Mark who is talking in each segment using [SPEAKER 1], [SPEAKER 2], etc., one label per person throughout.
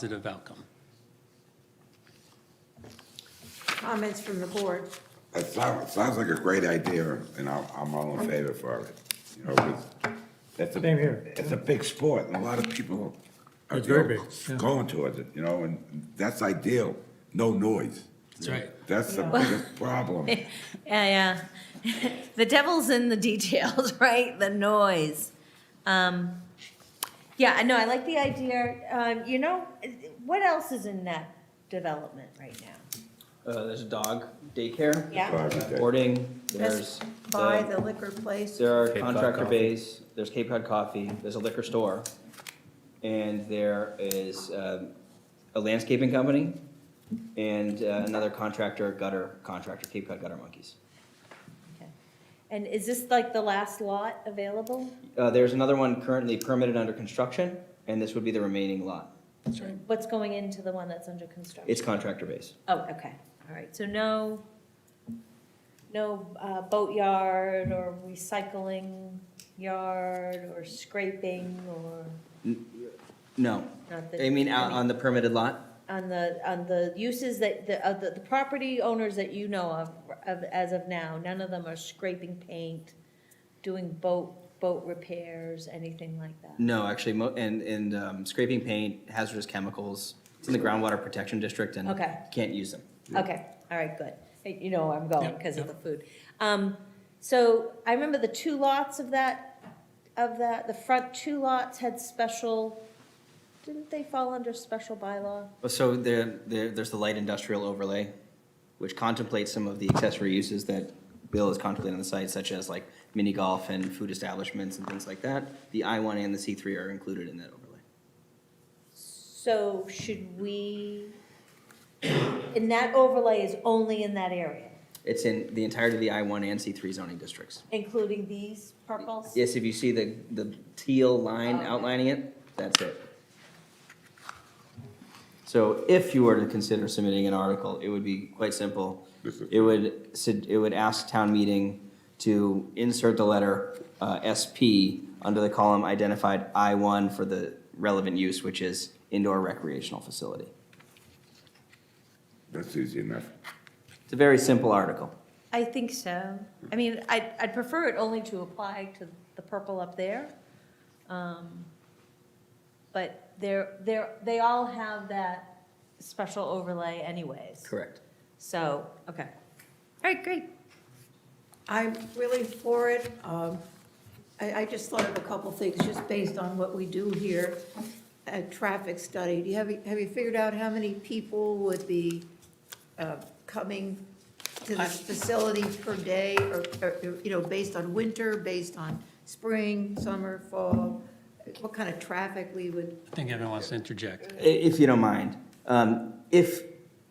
[SPEAKER 1] positive outcome.
[SPEAKER 2] Comments from the board?
[SPEAKER 3] It sounds, it sounds like a great idea, and I'm, I'm all in favor for it, you know, 'cause that's a.
[SPEAKER 4] Same here.
[SPEAKER 3] It's a big sport, and a lot of people are,
[SPEAKER 4] It's
[SPEAKER 3] you
[SPEAKER 4] very
[SPEAKER 3] know,
[SPEAKER 4] big, yeah.
[SPEAKER 3] going towards it, you know, and that's ideal, no noise.
[SPEAKER 1] That's right.
[SPEAKER 3] That's the biggest problem.
[SPEAKER 5] Yeah, yeah. The devil's in the details, right? The noise. Um, yeah, I know, I like the idea. Um, you know, what else is in that development right now?
[SPEAKER 6] Uh, there's a dog daycare,
[SPEAKER 5] Yeah,
[SPEAKER 3] Sorry about that.
[SPEAKER 6] boarding,
[SPEAKER 2] That's
[SPEAKER 6] there's
[SPEAKER 2] by
[SPEAKER 6] the,
[SPEAKER 2] the liquor place.
[SPEAKER 6] there are
[SPEAKER 4] Cape Cod
[SPEAKER 6] contractor
[SPEAKER 4] Coffee.
[SPEAKER 6] bays, there's Cape Cod Coffee, there's a liquor store. And there is, um, a landscaping company and uh, another contractor, gutter contractor, Cape Cod Gutter Monkeys.
[SPEAKER 5] okay. And is this like the last lot available?
[SPEAKER 6] Uh, there's another one currently permitted under construction, and this would be the remaining lot.
[SPEAKER 5] What's going into the one that's under construction?
[SPEAKER 6] It's contractor base.
[SPEAKER 5] Oh, okay, all right, so no, no uh, boatyard or recycling yard or scraping or
[SPEAKER 6] No,
[SPEAKER 5] not that.
[SPEAKER 6] I mean, out on the permitted lot,
[SPEAKER 5] On the, on the uses that, the, of the, the property owners that you know of, of, as of now, none of them are scraping paint, doing boat, boat repairs, anything like that.
[SPEAKER 6] No, actually, mo- and, and um, scraping paint, hazardous chemicals, it's in the groundwater protection district and
[SPEAKER 5] Okay.
[SPEAKER 6] can't use them.
[SPEAKER 5] Okay, all right, good. Hey, You know where I'm going
[SPEAKER 1] Yep,
[SPEAKER 5] because of the
[SPEAKER 1] yep.
[SPEAKER 5] food. Um, so I remember the two lots of that, of that, the front two lots had special, didn't they fall under special bylaw?
[SPEAKER 6] Well, So there, there, there's the light industrial overlay, which contemplates some of the accessory uses that Bill is contemplating on the site, such as like mini golf and food establishments and things like that. The I one and the C three are included in that overlay.
[SPEAKER 5] So should we, and that overlay is only in that area,
[SPEAKER 6] It's in the entirety of the I one and C three zoning districts.
[SPEAKER 5] including these purples?
[SPEAKER 6] Yes, if you see the, the teal line
[SPEAKER 5] Oh.
[SPEAKER 6] outlining it, that's it. So if you were to consider submitting an article, it would be quite simple.
[SPEAKER 3] This is-
[SPEAKER 6] It would, sed- it would ask town meeting to insert the letter uh, SP under the column identified I-1 for the relevant use, which is indoor recreational facility.
[SPEAKER 3] That's easy enough.
[SPEAKER 6] It's a very simple article.
[SPEAKER 5] I think so. I mean, I'd, I'd prefer it only to apply to the purple up there. Um, But they're, they're, they all have that special overlay anyways.
[SPEAKER 6] Correct.
[SPEAKER 5] So, okay. All right, great.
[SPEAKER 2] I'm really for it. Um, I, I just thought of a couple things, just based on what we do here. A traffic study, do you have, have you figured out how many people would be uh, coming to this facility per day? Or, or, you know, based on winter, based on spring, summer, fall? What kind of traffic we would,
[SPEAKER 1] I think everyone wants to interject.
[SPEAKER 6] I- If you don't mind, um, if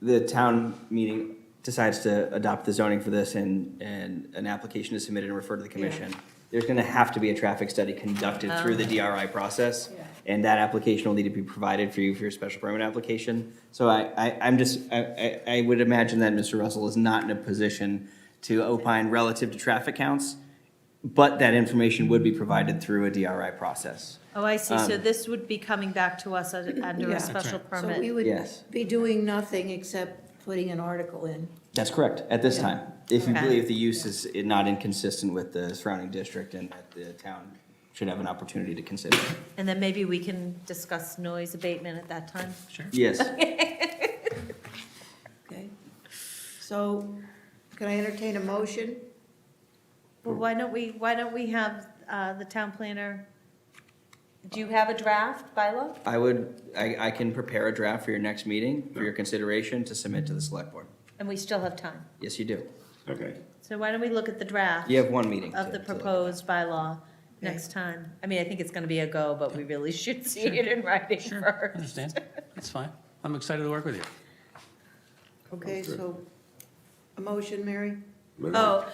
[SPEAKER 6] the town meeting decides to adopt the zoning for this and, and an application is submitted and referred to the commission, there's gonna have to be a traffic study conducted through the DRI process.
[SPEAKER 2] Yeah.
[SPEAKER 6] And that application will need to be provided for you for your special permit application. So I, I, I'm just, I, I, I would imagine that Mr. Russell is not in a position to opine relative to traffic counts, but that information would be provided through a DRI process.
[SPEAKER 5] Oh, I see.
[SPEAKER 6] Um,
[SPEAKER 5] So this would be coming back to us under
[SPEAKER 2] Yeah.
[SPEAKER 5] a
[SPEAKER 2] That's so
[SPEAKER 5] special
[SPEAKER 2] we
[SPEAKER 5] permit.
[SPEAKER 2] would
[SPEAKER 6] Yes.
[SPEAKER 2] be doing nothing except putting an article in.
[SPEAKER 6] That's correct, at this time. If you
[SPEAKER 5] Okay.
[SPEAKER 6] believe the use is not inconsistent with the surrounding district and that the town should have an opportunity to consider. it.
[SPEAKER 5] And then maybe we can discuss noise abatement at that time.
[SPEAKER 1] Sure.
[SPEAKER 6] Yes,
[SPEAKER 2] Okay, so can I entertain a motion?
[SPEAKER 5] Well, why don't we, why don't we have uh, the town planner? Do you have a draft bylaw?
[SPEAKER 6] I would, I, I can prepare a draft for your next meeting, for your consideration to submit to the select board.
[SPEAKER 5] And we still have time.
[SPEAKER 6] Yes, you do.
[SPEAKER 3] Okay,
[SPEAKER 5] So why don't we look at the draft
[SPEAKER 6] You have one meeting.
[SPEAKER 5] of
[SPEAKER 6] to-
[SPEAKER 5] the
[SPEAKER 6] to look at.
[SPEAKER 5] proposed bylaw next time? I mean, I think it's gonna be a go, but we really should see it in writing
[SPEAKER 1] Sure,
[SPEAKER 5] first.
[SPEAKER 1] understand. That's fine. I'm excited to work with you.
[SPEAKER 2] Okay,
[SPEAKER 3] Sounds good.
[SPEAKER 2] so, a motion, Mary?
[SPEAKER 3] Look at
[SPEAKER 5] Oh,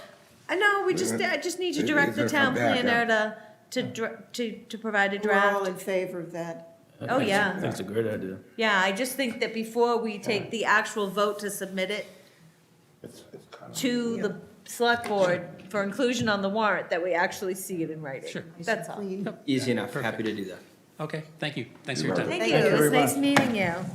[SPEAKER 5] I know, we just, I just need to direct the town planner to, to, dr- to, to provide a
[SPEAKER 2] We're all
[SPEAKER 5] draft.
[SPEAKER 2] in favor of that.
[SPEAKER 5] Oh, yeah.
[SPEAKER 4] That's a great idea.
[SPEAKER 5] Yeah, I just think that before we take the actual vote to submit it
[SPEAKER 3] It's- it's kind of-
[SPEAKER 5] to the select board for inclusion on the warrant, that we actually see it in writing.
[SPEAKER 1] Sure.
[SPEAKER 5] That's all.
[SPEAKER 2] Clean.
[SPEAKER 6] Easy enough, happy to do that.
[SPEAKER 7] Okay, thank you. Thanks for your time.
[SPEAKER 5] Thank
[SPEAKER 1] Thank
[SPEAKER 5] you,
[SPEAKER 1] you
[SPEAKER 5] it was
[SPEAKER 2] very
[SPEAKER 5] nice
[SPEAKER 2] much.
[SPEAKER 5] meeting you.